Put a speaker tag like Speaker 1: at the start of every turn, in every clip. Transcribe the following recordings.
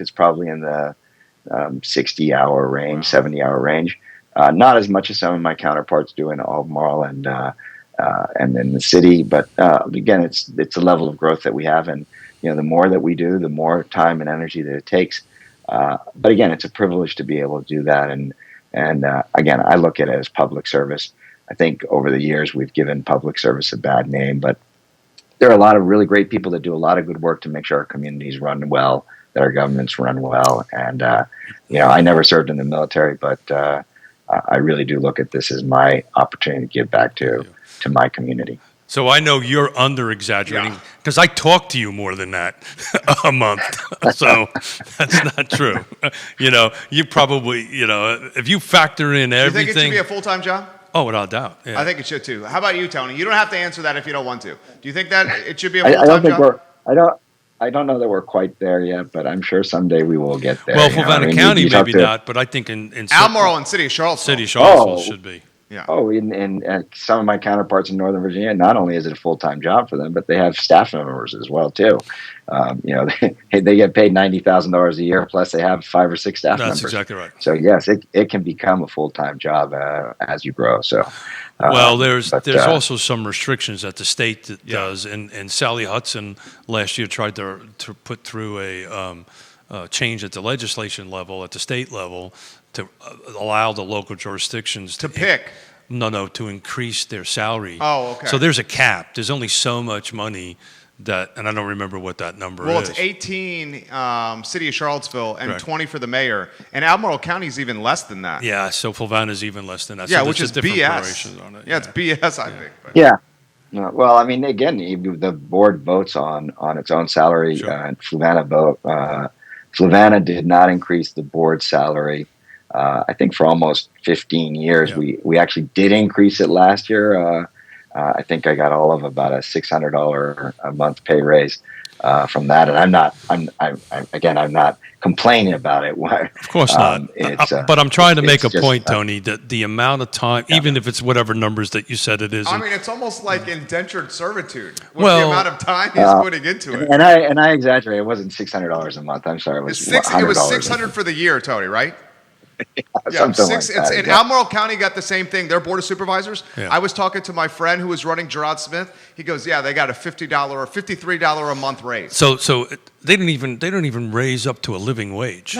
Speaker 1: It's probably in the um, 60 hour range, 70 hour range. Uh, not as much as some of my counterparts do in Albemarle and uh, uh, and in the city, but uh, again, it's it's a level of growth that we have, and you know the more that we do, the more time and energy that it takes. Uh, but again, it's a privilege to be able to do that, and and uh, again, I look at it as public service. I think over the years we've given public service a bad name, but there are a lot of really great people that do a lot of good work to make sure our communities run well, that our governments run well. And, uh, you know, I never served in the military, but uh, I I really do look at this as my opportunity to give back to, to my community.
Speaker 2: So I know you're under exaggerating because I talk to you more than that a month. so that's not true. you know, you probably, you know, if you factor in
Speaker 3: You think
Speaker 2: everything.
Speaker 3: it should be a full time job?
Speaker 2: oh, without doubt. Yeah.
Speaker 3: I think it should too. How about you, Tony? You don't have to answer that if you don't want to. Do you think that it should be a
Speaker 1: I,
Speaker 3: full
Speaker 1: I don't
Speaker 3: time
Speaker 1: think
Speaker 3: job?
Speaker 1: we're, I don't, I don't know that we're quite there yet, but I'm sure someday we will get there.
Speaker 2: well,
Speaker 1: you know. I
Speaker 2: Havana
Speaker 1: mean, you-
Speaker 2: County,
Speaker 1: you talk
Speaker 2: maybe
Speaker 1: to-
Speaker 2: not, but I think in, in certain
Speaker 3: Albemarle and City of Charlottesville.
Speaker 2: city, Charlottesville
Speaker 1: Oh.
Speaker 2: should be.
Speaker 3: Yeah.
Speaker 1: Oh, and, and uh, some of my counterparts in Northern Virginia, not only is it a full time job for them, but they have staff members as well too. Um, you know, they, they get paid ninety thousand dollars a year, plus they have five or six staff
Speaker 2: That's
Speaker 1: members.
Speaker 2: exactly right.
Speaker 1: So yes, it, it can become a full time job uh, as you grow. So uh,
Speaker 2: Well, there's
Speaker 1: but,
Speaker 2: there's
Speaker 1: uh,
Speaker 2: also some restrictions that the state that does, and, and Sally Hudson last year tried to to put through a um, uh, change at the legislation level, at the state level, to uh, allow the local jurisdictions
Speaker 3: To pick.
Speaker 2: No, no, to increase their salary.
Speaker 3: Oh, okay.
Speaker 2: So there's a cap. There's only so much money that, and I don't remember what that number
Speaker 3: Well,
Speaker 2: is.
Speaker 3: it's 18 um, City of Charlottesville and
Speaker 2: Correct.
Speaker 3: 20 for the mayor. And Albemarle County is even less than that.
Speaker 2: Yeah, so Fulvana's even less than that.
Speaker 3: Yeah,
Speaker 2: so
Speaker 3: which
Speaker 2: there's
Speaker 3: is
Speaker 2: just different
Speaker 3: BS.
Speaker 2: variations on it.
Speaker 3: yeah, it's BS, I think. but-
Speaker 1: Yeah. No, well, I mean, again, you- the board votes on on its own salary.
Speaker 2: Sure.
Speaker 1: Uh, and Flavanna vote. Uh, Flavanna did not increase the board salary. Uh, I think for almost 15 years,
Speaker 2: Yeah.
Speaker 1: we we actually did increase it last year. Uh, uh, I think I got all of about a $600 a month pay raise uh, from that, and I'm not. I'm, I'm, I'm again, I'm not complaining about it.
Speaker 2: Of course
Speaker 1: Um,
Speaker 2: not.
Speaker 1: it's,
Speaker 2: Uh,
Speaker 1: uh,
Speaker 2: but I'm trying to make
Speaker 1: it's
Speaker 2: a
Speaker 1: just,
Speaker 2: point,
Speaker 1: uh,
Speaker 2: Tony, that the amount of time, even if it's whatever numbers that you said it is,
Speaker 3: I
Speaker 2: and-
Speaker 3: mean, it's almost like indentured servitude with the
Speaker 2: Well-
Speaker 3: amount of time he's putting into it.
Speaker 1: And uh, I and I exaggerate. It wasn't six hundred dollars a month. I'm sorry. It was
Speaker 3: It's six, it
Speaker 1: $100
Speaker 3: was
Speaker 1: a
Speaker 3: 600 for the year, Tony, right?
Speaker 1: something like that,
Speaker 3: it's, and
Speaker 1: yeah.
Speaker 3: Albemarle County got the same thing. Their board of supervisors.
Speaker 2: Yeah.
Speaker 3: I was talking to my friend who was running Gerard Smith. He goes, "Yeah, they got a fifty dollar or fifty three dollar a month raise."
Speaker 2: so so it- they didn't even they don't even raise up to a living wage.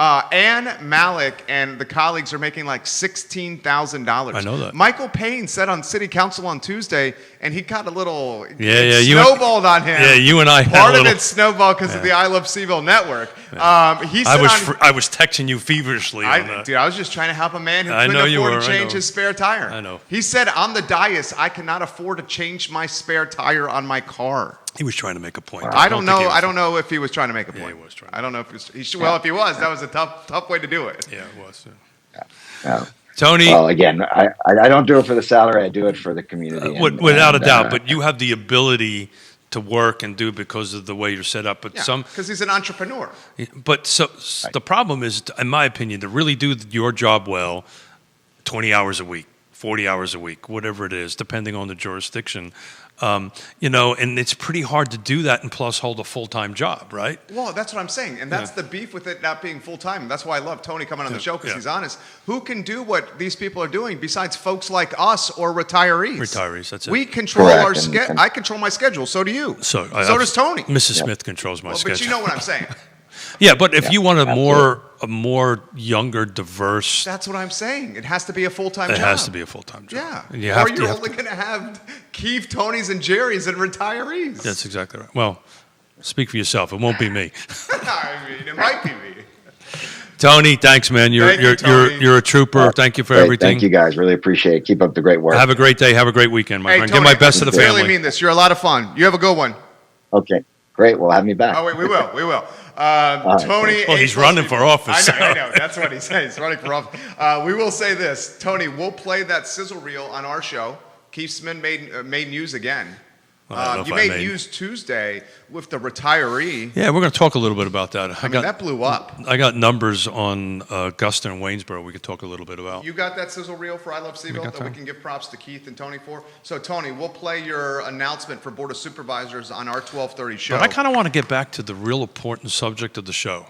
Speaker 3: Uh, Ann Malik and the colleagues are making like sixteen thousand dollars.
Speaker 2: I know that.
Speaker 3: Michael Payne said on City Council on Tuesday, and he got a little
Speaker 2: Yeah,
Speaker 3: it
Speaker 2: yeah, you and-
Speaker 3: snowballed on him.
Speaker 2: Yeah, you and I had a
Speaker 3: Part of
Speaker 2: little-
Speaker 3: it snowballed because of the I Love Seville network. Um, he said
Speaker 2: I was
Speaker 3: on-
Speaker 2: fr- I was texting you feverishly. on
Speaker 3: I,
Speaker 2: that.
Speaker 3: dude, I was just trying to help a man who
Speaker 2: I
Speaker 3: couldn't
Speaker 2: know you
Speaker 3: afford
Speaker 2: were,
Speaker 3: to
Speaker 2: I
Speaker 3: change
Speaker 2: know.
Speaker 3: his spare tire.
Speaker 2: I know.
Speaker 3: He said on the dais, I cannot afford to change my spare tire on my car.
Speaker 2: he was trying to make a point.
Speaker 3: I don't
Speaker 2: think he
Speaker 3: know.
Speaker 2: was-
Speaker 3: I don't know if he was trying to make a point.
Speaker 2: he was trying.
Speaker 3: I don't know if he was. He should, well, if he was, that was a tough, tough way to do it.
Speaker 2: Yeah, it was. yeah.
Speaker 1: Yeah.
Speaker 2: Tony,
Speaker 1: Well, again, I, I I don't do it for the salary. I do it for the community.
Speaker 2: uh,
Speaker 1: and-
Speaker 2: wi- without
Speaker 1: and,
Speaker 2: a doubt,
Speaker 1: uh,
Speaker 2: but you have the ability to work and do because of the way you're set up. But some
Speaker 3: because he's an entrepreneur.
Speaker 2: But so s the problem is, in my opinion, to really do your job well, 20 hours a week, 40 hours a week, whatever it is, depending on the jurisdiction, um, you know, and it's pretty hard to do that and plus hold a full time job, right?
Speaker 3: Well, that's what I'm saying, and that's the beef with it not being full time. That's why I love Tony coming on the show because
Speaker 2: yeah.
Speaker 3: he's honest. Who can do what these people are doing besides folks like us or retirees?
Speaker 2: Retirees, that's it.
Speaker 3: We control
Speaker 1: Correct,
Speaker 3: our
Speaker 1: and-
Speaker 3: schedule.
Speaker 1: and-
Speaker 3: I control my schedule. So do you.
Speaker 2: So,
Speaker 3: so
Speaker 2: I-
Speaker 3: does Tony.
Speaker 2: Mrs. Smith controls my
Speaker 3: Well,
Speaker 2: schedule.
Speaker 3: but you know what I'm saying.
Speaker 2: yeah, but if you want a more a more younger, diverse,
Speaker 3: That's what I'm saying. It has to be a full time
Speaker 2: it
Speaker 3: job.
Speaker 2: has to be a full time job.
Speaker 3: Yeah.
Speaker 2: And you
Speaker 3: or
Speaker 2: have to.
Speaker 3: you're
Speaker 2: you have
Speaker 3: only
Speaker 2: to-
Speaker 3: going to have Keith, Tony's, and Jerry's and retirees.
Speaker 2: that's exactly right. Well, speak for yourself. It won't be me.
Speaker 3: I mean, it might be me.
Speaker 2: Tony, thanks, man. You're
Speaker 3: Thank you,
Speaker 2: you're, you're
Speaker 3: Tony.
Speaker 2: you're a trooper. uh, thank you for
Speaker 1: great.
Speaker 2: everything.
Speaker 1: Thank you guys. Really appreciate it. Keep up the great work.
Speaker 2: Have a great day. Have a great weekend, my
Speaker 3: Hey,
Speaker 2: friend.
Speaker 3: Tony,
Speaker 2: Give my best to the
Speaker 3: I really
Speaker 2: family.
Speaker 3: mean this. You're a lot of fun. You have a good one.
Speaker 1: okay. Great. Well, have me back.
Speaker 3: Oh wait, we will, we will.
Speaker 1: All
Speaker 3: Um,
Speaker 1: right.
Speaker 3: Tony.
Speaker 2: Well, he's
Speaker 3: A plus
Speaker 2: running
Speaker 3: people-
Speaker 2: for office,
Speaker 3: I know, I
Speaker 2: so.
Speaker 3: know. That's what he said. He's running for office. Uh, we will say this, Tony. We'll play that sizzle reel on our show. Keith Smith made uh, made news again.
Speaker 2: Well, I don't know
Speaker 3: Uh,
Speaker 2: if
Speaker 3: you
Speaker 2: I
Speaker 3: made,
Speaker 2: made-
Speaker 3: news Tuesday with the retiree.
Speaker 2: yeah, we're going to talk a little bit about that. I,
Speaker 3: I mean,
Speaker 2: got
Speaker 3: that blew up.
Speaker 2: I got numbers on uh, Augusta and Waynesboro. We could talk a little bit about.
Speaker 3: You got that sizzle reel for I Love Seville
Speaker 2: got
Speaker 3: that we
Speaker 2: time.
Speaker 3: can give props to Keith and Tony for. So Tony, we'll play your announcement for Board of Supervisors on our 12:30 show.
Speaker 2: but I kind of want to get back to the real important subject of the show.